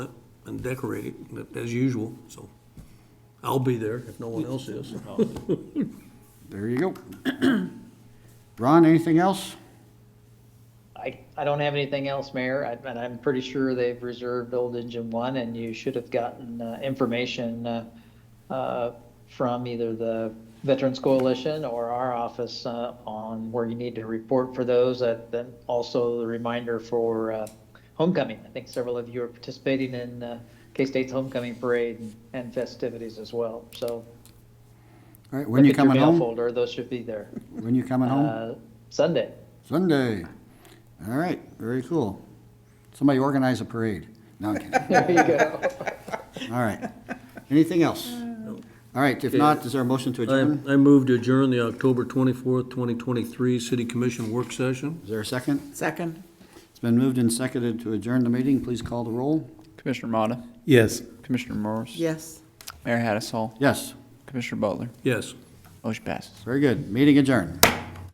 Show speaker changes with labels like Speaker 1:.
Speaker 1: and decorate it, but as usual, so. I'll be there if no one else is.
Speaker 2: There you go. Ron, anything else?
Speaker 3: I, I don't have anything else, Mayor, I- and I'm pretty sure they've reserved Old Engine One, and you should have gotten uh, information uh, uh, from either the Veterans Coalition or our office uh, on where you need to report for those, and then also the reminder for uh, homecoming. I think several of you are participating in uh, K-State's homecoming parade and festivities as well, so.
Speaker 2: All right, when you
Speaker 3: look at your
Speaker 2: coming
Speaker 3: mail
Speaker 2: home?
Speaker 3: Folder, those should be there.
Speaker 2: When you coming home?
Speaker 3: Uh, Sunday.
Speaker 2: Sunday. All right, very cool. Somebody organize a parade. No, I'm kidding.
Speaker 3: There you go.
Speaker 2: All right. Anything else? All right, if not, is there a motion to
Speaker 1: I,
Speaker 2: adjourn?
Speaker 1: I move to adjourn the October twenty-fourth, twenty twenty-three City Commission work session.
Speaker 2: Is there a second?
Speaker 4: Second.
Speaker 2: It's been moved and seconded to adjourn the meeting. Please call the roll.
Speaker 5: Commissioner Motta,
Speaker 6: Yes.
Speaker 5: Commissioner Morris,
Speaker 4: Yes.
Speaker 5: Mayor Hattasol,
Speaker 2: Yes,
Speaker 5: Commissioner Butler,
Speaker 1: Yes.
Speaker 5: motion passes.
Speaker 2: very good. Meeting adjourned.